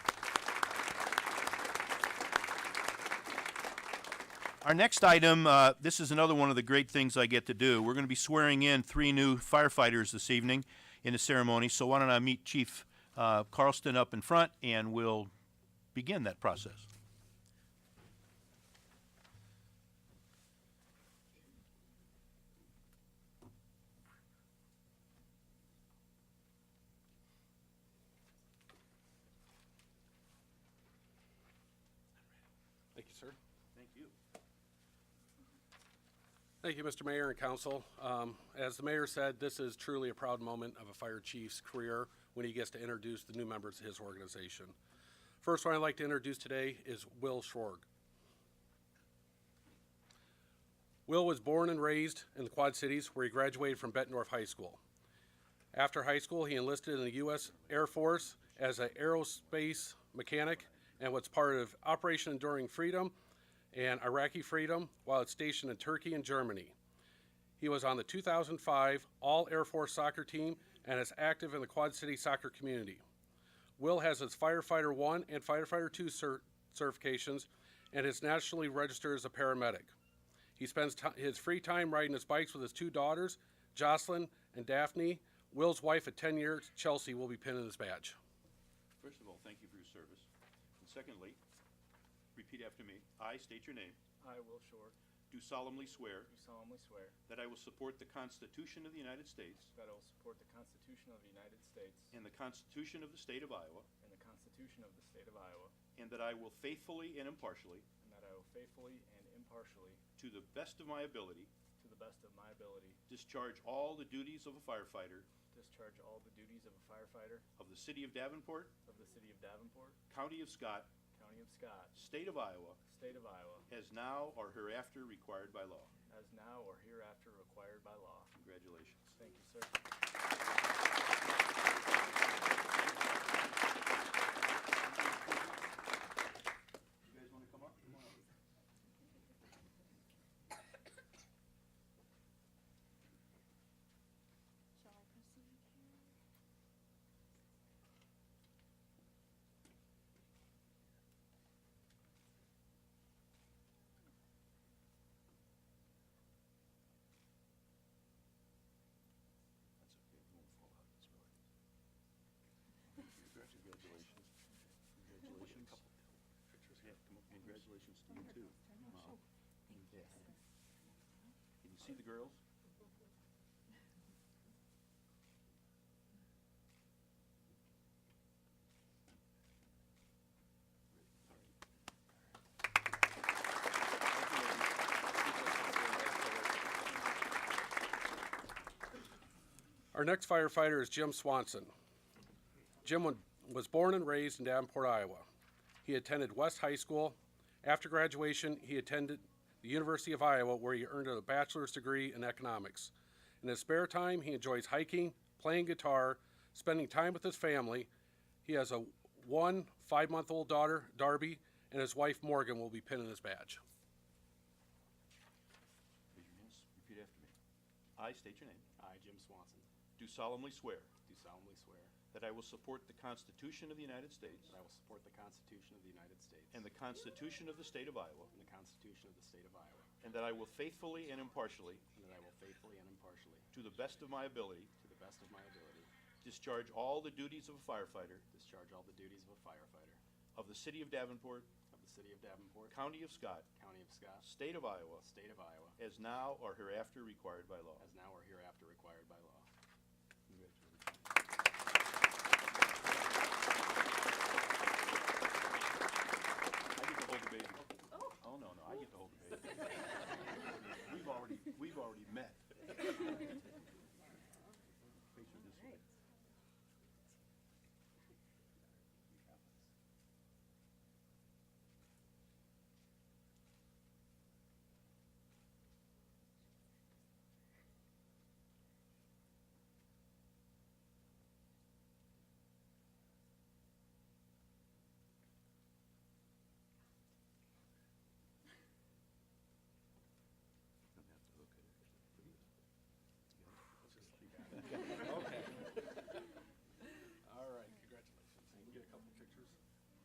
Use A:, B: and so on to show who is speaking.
A: Our next item, uh, this is another one of the great things I get to do. We're going to be swearing in three new firefighters this evening in the ceremony, so why don't I meet Chief uh, Carlston up in front, and we'll begin that process.
B: Thank you, sir.
A: Thank you.
B: Thank you, Mr. Mayor and Council. Um, As the mayor said, this is truly a proud moment of a fire chief's career when he gets to introduce the new members of his organization. First one I'd like to introduce today is Will Schorg. Will was born and raised in the Quad Cities where he graduated from Bettendorf High School. After high school, he enlisted in the U.S. Air Force as an aerospace mechanic and was part of Operation Enduring Freedom and Iraqi Freedom while stationed in Turkey and Germany. He was on the 2005 All Air Force soccer team and is active in the Quad City soccer community. Will has his Firefighter 1 and Firefighter 2 cert- certifications and is nationally registered as a paramedic. He spends ti his free time riding his bikes with his two daughters, Jocelyn and Daphne. Will's wife of 10 years, Chelsea, will be pinning his badge.
A: First of all, thank you for your service. And secondly, repeat after me. I state your name.
C: I, Will Short,
A: Do solemnly swear
C: do solemnly swear
A: that I will support the Constitution of the United States
C: that I will support the Constitution of the United States
A: and the Constitution of the State of Iowa,
C: and the Constitution of the State of Iowa,
A: and that I will faithfully and impartially,
C: and that I will faithfully and impartially,
A: to the best of my ability,
C: to the best of my ability,
A: discharge all the duties of a firefighter
C: discharge all the duties of a firefighter
A: of the City of Davenport,
C: of the City of Davenport,
A: County of Scott,
C: County of Scott,
A: State of Iowa,
C: State of Iowa,
A: as now or hereafter required by law.
C: as now or hereafter required by law.
A: Congratulations.
C: Thank you, sir.
A: You guys want to come up? Come on up.
D: Shall I proceed?
A: That's okay, it won't fall out, it's all right. Congratulations. Congratulations. Yeah, come up, congratulations to you too. Wow. Yeah. Can you see the girls?
B: Our next firefighter is Jim Swanson. Jim wa- was born and raised in Davenport, Iowa. He attended West High School. After graduation, he attended the University of Iowa, where he earned a bachelor's degree in economics. In his spare time, he enjoys hiking, playing guitar, spending time with his family. He has a one five month old daughter, Darby, and his wife, Morgan, will be pinning his badge.
A: Raise your hands, repeat after me. I state your name.
E: I, Jim Swanson,
A: Do solemnly swear
E: do solemnly swear
A: that I will support the Constitution of the United States
E: that I will support the Constitution of the United States
A: and the Constitution of the State of Iowa,
E: and the Constitution of the State of Iowa,
A: and that I will faithfully and impartially,
E: and that I will faithfully and impartially,
A: to the best of my ability,
E: to the best of my ability,
A: discharge all the duties of a firefighter
E: discharge all the duties of a firefighter
A: of the City of Davenport,
E: of the City of Davenport,
A: County of Scott,
E: County of Scott,
A: State of Iowa,
E: State of Iowa,
A: as now or hereafter required by law.
E: as now or hereafter required by law.
A: Oh,